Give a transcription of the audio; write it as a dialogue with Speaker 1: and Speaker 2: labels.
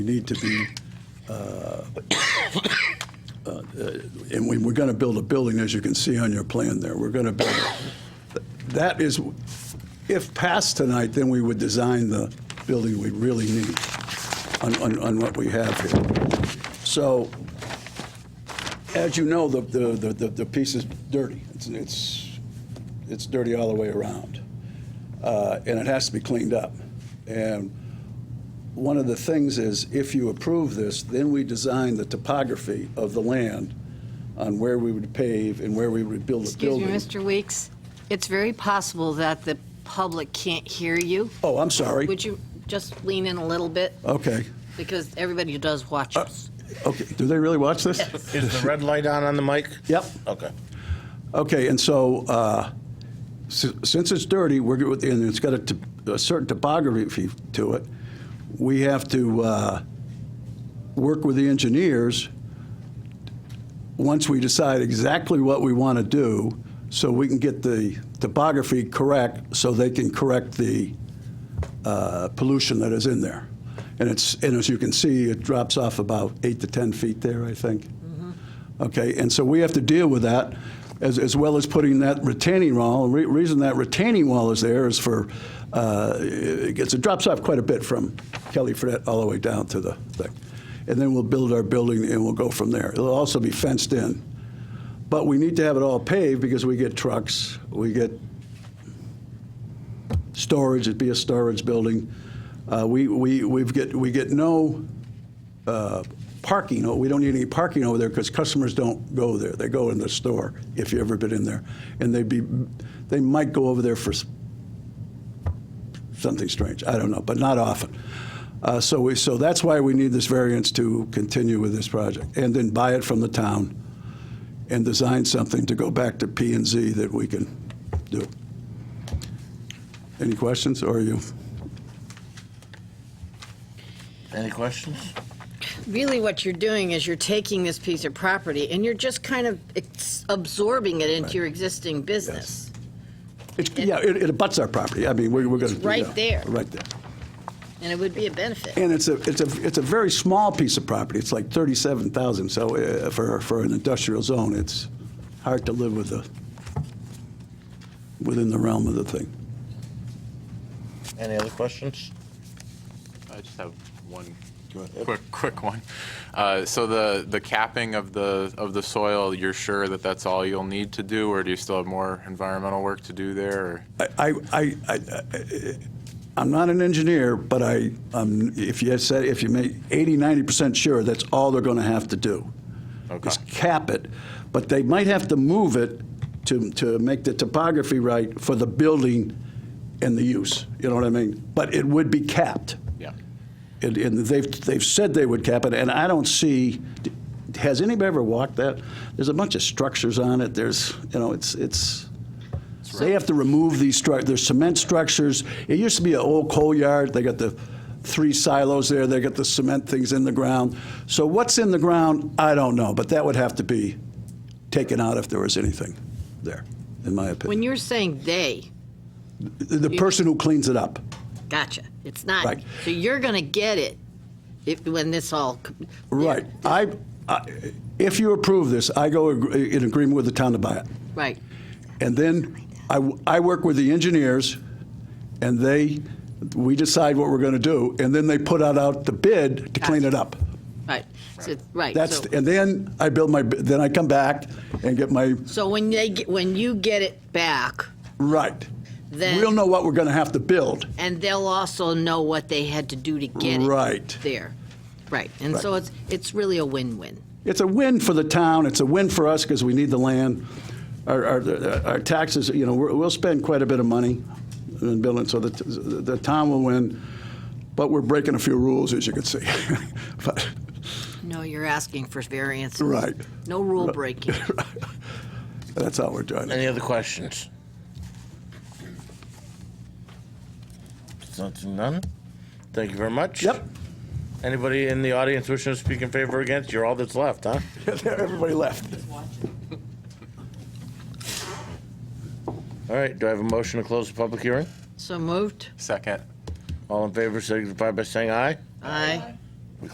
Speaker 1: We need to be, uh, uh, and we, we're going to build a building, as you can see on your plan there. We're going to build, that is, if passed tonight, then we would design the building we really need on, on, on what we have here. So, as you know, the, the, the- the, the piece is dirty. It's, it's, it's dirty all the way around. Uh, and it has to be cleaned up. And one of the things is, if you approve this, then we design the topography of the land on where we would pave and where we would build a
Speaker 2: Excuse
Speaker 1: building.
Speaker 2: me, Mr. Weeks, it's very possible that the public can't hear you.
Speaker 1: Oh, I'm sorry.
Speaker 2: Would you just lean in a little bit?
Speaker 1: Okay.
Speaker 2: Because everybody does watch us.
Speaker 1: Okay. Do they really watch this?
Speaker 3: Is the red light on on the mic?
Speaker 1: Yep.
Speaker 3: Okay.
Speaker 1: Okay, and so, uh, si- since it's dirty, we're, go- and it's got a t- a certain topography to it, we have to uh, work with the engineers, once we decide exactly what we want to do, so we can get the topography correct, so they can correct the uh, pollution that is in there. And it's, and as you can see, it drops off about eight to 10 feet there, I think. Okay, and so we have to deal with that, as, as well as putting that retaining wall. Re- reason that retaining wall is there is for, uh, it gets, it drops off quite a bit from Kelly Fredette all the way down to the thing. And then we'll build our building and we'll go from there. It'll also be fenced in. But we need to have it all paved because we get trucks, we get storage, it'd be a storage building. Uh, we, we, we've get, we get no uh, parking, oh, we don't need any parking over there because customers don't go there. They go in the store, if you've ever been in there. And they'd be, they might go over there for s- something strange, I don't know, but not often. Uh, So we, so that's why we need this variance to continue with this project. And then buy it from the town and design something to go back to P and Z that we can do. Any questions, or are you?
Speaker 3: Any questions?
Speaker 2: Really, what you're doing is you're taking this piece of property and you're just kind of ex- absorbing it into your existing business.
Speaker 1: It's- Yeah, it it abuts our property. I mean, we're we're gonna.
Speaker 2: It's right
Speaker 1: yeah,
Speaker 2: there.
Speaker 1: Right there.
Speaker 2: And it would be a benefit.
Speaker 1: And it's a, it's a, it's a very small piece of property. It's like 37,000, so uh, for, for an industrial zone, it's hard to live with the, within the realm of the thing.
Speaker 3: Any other questions?
Speaker 4: I just have one
Speaker 3: Go ahead.
Speaker 4: quick, quick one. Uh, So the, the capping of the, of the soil, you're sure that that's all you'll need to do, or do you still have more environmental work to do there? or-
Speaker 1: I, I, I- I, I'm not an engineer, but I, um, if you said, if you make 80, 90% sure, that's all they're gonna have to do.
Speaker 4: Okay.
Speaker 1: Is cap it, but they might have to move it to, to make the topography right for the building and the use, you know what I mean? But it would be capped.
Speaker 4: Yeah.
Speaker 1: And, and they've, they've said they would cap it, and I don't see, has anybody ever walked that? There's a bunch of structures on it, there's, you know, it's, it's, they have to remove these stru, there's cement structures. It used to be an old coal yard, they got the three silos there, they got the cement things in the ground. So what's in the ground, I don't know, but that would have to be taken out if there was anything there, in my
Speaker 2: When
Speaker 1: opinion.
Speaker 2: you're saying "they,"
Speaker 1: The the person who cleans it up.
Speaker 2: gotcha, it's not,
Speaker 1: Right.
Speaker 2: so you're going to get it if, when this all. com-
Speaker 1: Right. I, I- if you approve this, I go ag- in agreement with the town to buy it.
Speaker 2: Right.
Speaker 1: And then I, w- I work with the engineers, and they, we decide what we're going to do, and then they put out, out the bid to clean it up.
Speaker 2: Right, so, right.
Speaker 1: That's,
Speaker 2: so-
Speaker 1: and then I build my, b- then I come back and get my,
Speaker 2: So when they, get- when you get it back,
Speaker 1: right.
Speaker 2: Then-
Speaker 1: We'll know what we're going to have to build.
Speaker 2: and they'll also know what they had to do to get it.
Speaker 1: Right.
Speaker 2: There, right. And so
Speaker 1: Right.
Speaker 2: it's, it's really a win-win.
Speaker 1: It's a win for the town, it's a win for us because we need the land. Our, our, our taxes, you know, we're- we'll spend quite a bit of money in building, so the, the town will win, but we're breaking a few rules, as you can see. But-
Speaker 2: No, you're asking for variances.
Speaker 1: Right,
Speaker 2: No rule breaking.
Speaker 1: that's how we're doing it.
Speaker 3: Any other questions? Something none? Thank you very much.
Speaker 1: Yep,
Speaker 3: Anybody in the audience wishing to speak in favor or against? You're all that's left, huh?
Speaker 1: everybody left.
Speaker 3: All right, do I have a motion to close the public hearing?
Speaker 2: So moved?
Speaker 4: Second.
Speaker 3: All in favor signify by saying aye.
Speaker 2: Aye.